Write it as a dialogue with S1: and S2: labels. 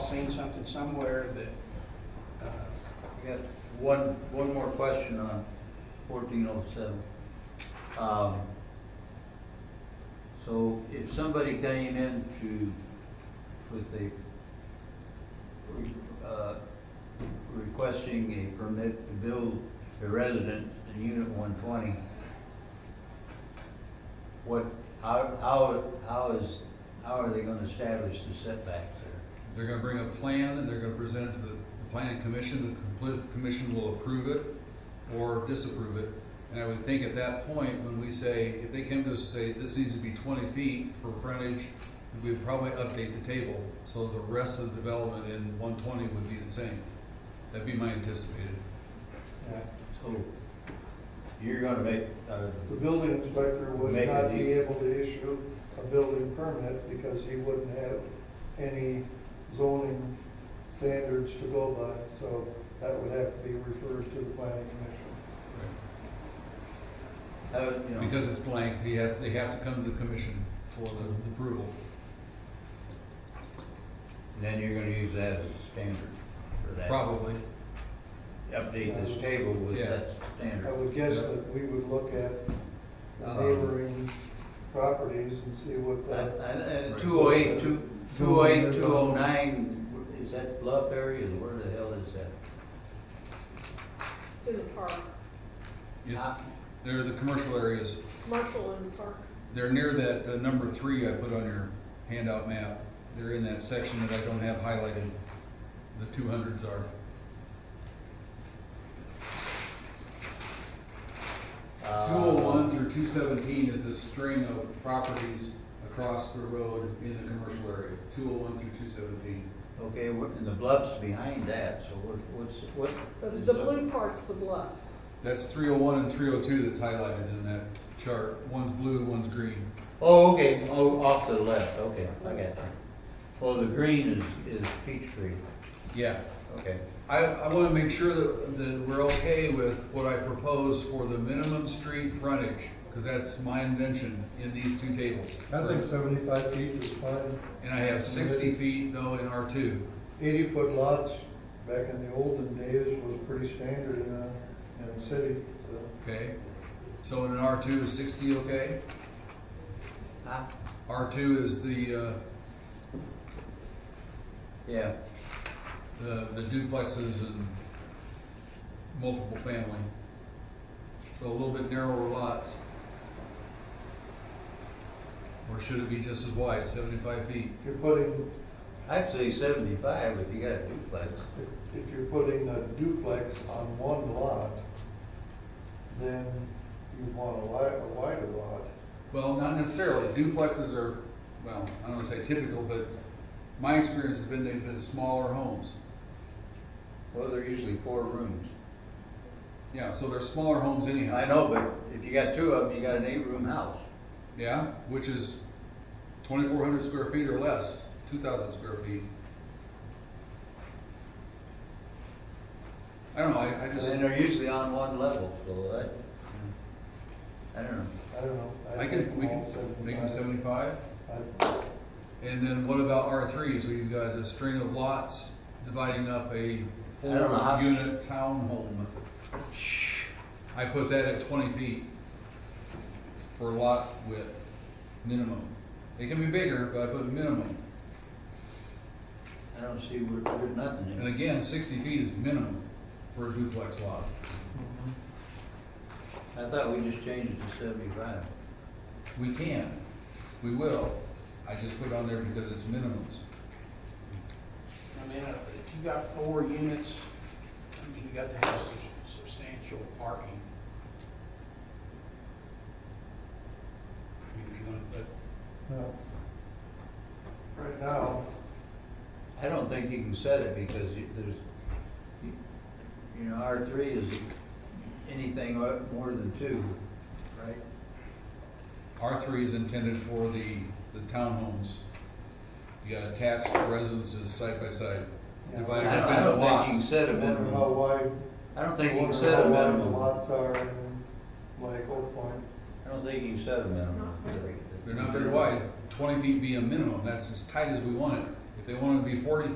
S1: seen something somewhere that, uh,
S2: I got one, one more question on fourteen oh seven. Um, So if somebody came in to, with a, uh, requesting a permit to build a residence in unit one twenty, what, how, how, how is, how are they gonna establish the setback there?
S3: They're gonna bring a plan and they're gonna present it to the the planning commission, the compli- commission will approve it or disapprove it. And I would think at that point, when we say, if they came to us and say, this needs to be twenty feet for frontage, we'd probably update the table, so the rest of the development in one twenty would be the same. That'd be my anticipated.
S4: Yeah.
S2: So you're gonna make, uh,
S4: The building inspector would
S2: Make a
S4: not be
S2: deed.
S4: able to issue a building permit because he wouldn't have any zoning standards to go by, so that would have to be referred to the planning commission.
S2: That would, Oh, you know.
S3: Because it's blank, he has, they have to come to the commission for the approval.
S2: And Then you're gonna use that as a standard for that.
S3: Probably,
S2: Update this table with
S3: Yeah.
S2: that
S4: I
S2: standard.
S4: would guess
S3: Yeah.
S4: that we would look at the
S2: Uh-huh.
S4: neighboring properties and see what that,
S2: And two oh eight, two, two oh eight, two oh nine, is that bluff area, where the hell is that?
S5: It's in the park,
S3: it's,
S2: Ah.
S3: they're the commercial areas,
S5: commercial in the park.
S3: They're near that, uh, number three I put on your handout map. They're in that section that I don't have highlighted. The two hundreds are.
S2: Uh,
S3: Two oh one through two seventeen is a string of properties across the road in the commercial area, two oh one through two seventeen.
S2: Uh, Okay, what, and the bluff's behind that, so what, what's, what?
S5: The,
S2: is
S5: the
S2: that?
S5: blue part's the bluffs.
S3: That's three oh one and three oh two that's highlighted in that chart. One's blue, one's green.
S2: Oh, okay, oh, off to the left, okay, I got you. Well, the green is, is peach tree,
S3: Yeah,
S2: okay.
S3: I, I wanna make sure that, that we're okay with what I propose for the minimum street frontage, cause that's my invention in these two tables.
S4: I think seventy-five feet is fine.
S3: And I have sixty feet though in R two.
S4: Eighty-foot lots, back in the olden days, was pretty standard in, a- in the city, so.
S3: Okay, so in an R two is sixty, okay?
S2: Huh?
S3: R two is the, uh,
S2: Yeah,
S3: the the duplexes and multiple family. So a little bit narrower lots. Or should it be just as wide, seventy-five feet?
S4: If you're putting,
S2: I'd say seventy-five if you got a duplex.
S4: if- if you're putting a duplex on one lot, then you want a li, a wider lot.
S3: Well, not necessarily, duplexes are, well, I don't wanna say typical, but my experience has been they've been smaller homes.
S2: Well, they're usually four rooms.
S3: Yeah, so they're smaller homes anyhow.
S2: I know, but if you got two of them, you got an eight-room house.
S3: Yeah, which is twenty-four hundred square feet or less, two thousand square feet. I don't know, I, I just,
S2: And they're usually on one level, so that, I don't know.
S4: I don't know.
S3: I can,
S4: think
S3: we
S4: all
S3: can make them
S4: 75.
S3: seventy-five,
S4: I-
S3: and then what about R three, so you've got a string of lots dividing up a
S2: I don't know how-
S3: four-unit townhome. I put that at twenty feet for lot width, minimum. It can be bigger, but I put a minimum,
S2: I don't see where, there's nothing in
S3: and
S2: it.
S3: again, sixty feet is minimum for a duplex lot.
S4: Mhm.
S2: I thought we just changed it to seventy-five.
S3: We can, we will. I just put it on there because it's minimums.
S1: I mean, uh, if you got four units, I mean, you got to have sus- substantial parking. I mean, If you're gonna put
S4: No. Right now,
S2: I don't think you can set it because you, there's, you- you know, R three is anything more than two, right?
S3: R three is intended for the, the townhomes. You got attached residences side by side.
S4: Yeah.
S2: I
S3: divided
S2: don't,
S3: up
S2: I
S3: into
S2: don't think you can
S3: lots.
S2: set a
S4: I wonder how
S2: minimum.
S4: wide,
S2: I don't think you can
S4: wonder
S2: set a
S4: how wide the
S2: minimum.
S4: lots are in, like Oak Point.
S2: I don't think you can set a minimum.
S5: Not very.
S3: They're not very wide. Twenty feet being a minimum, that's as tight as we want it. If they wanted to be forty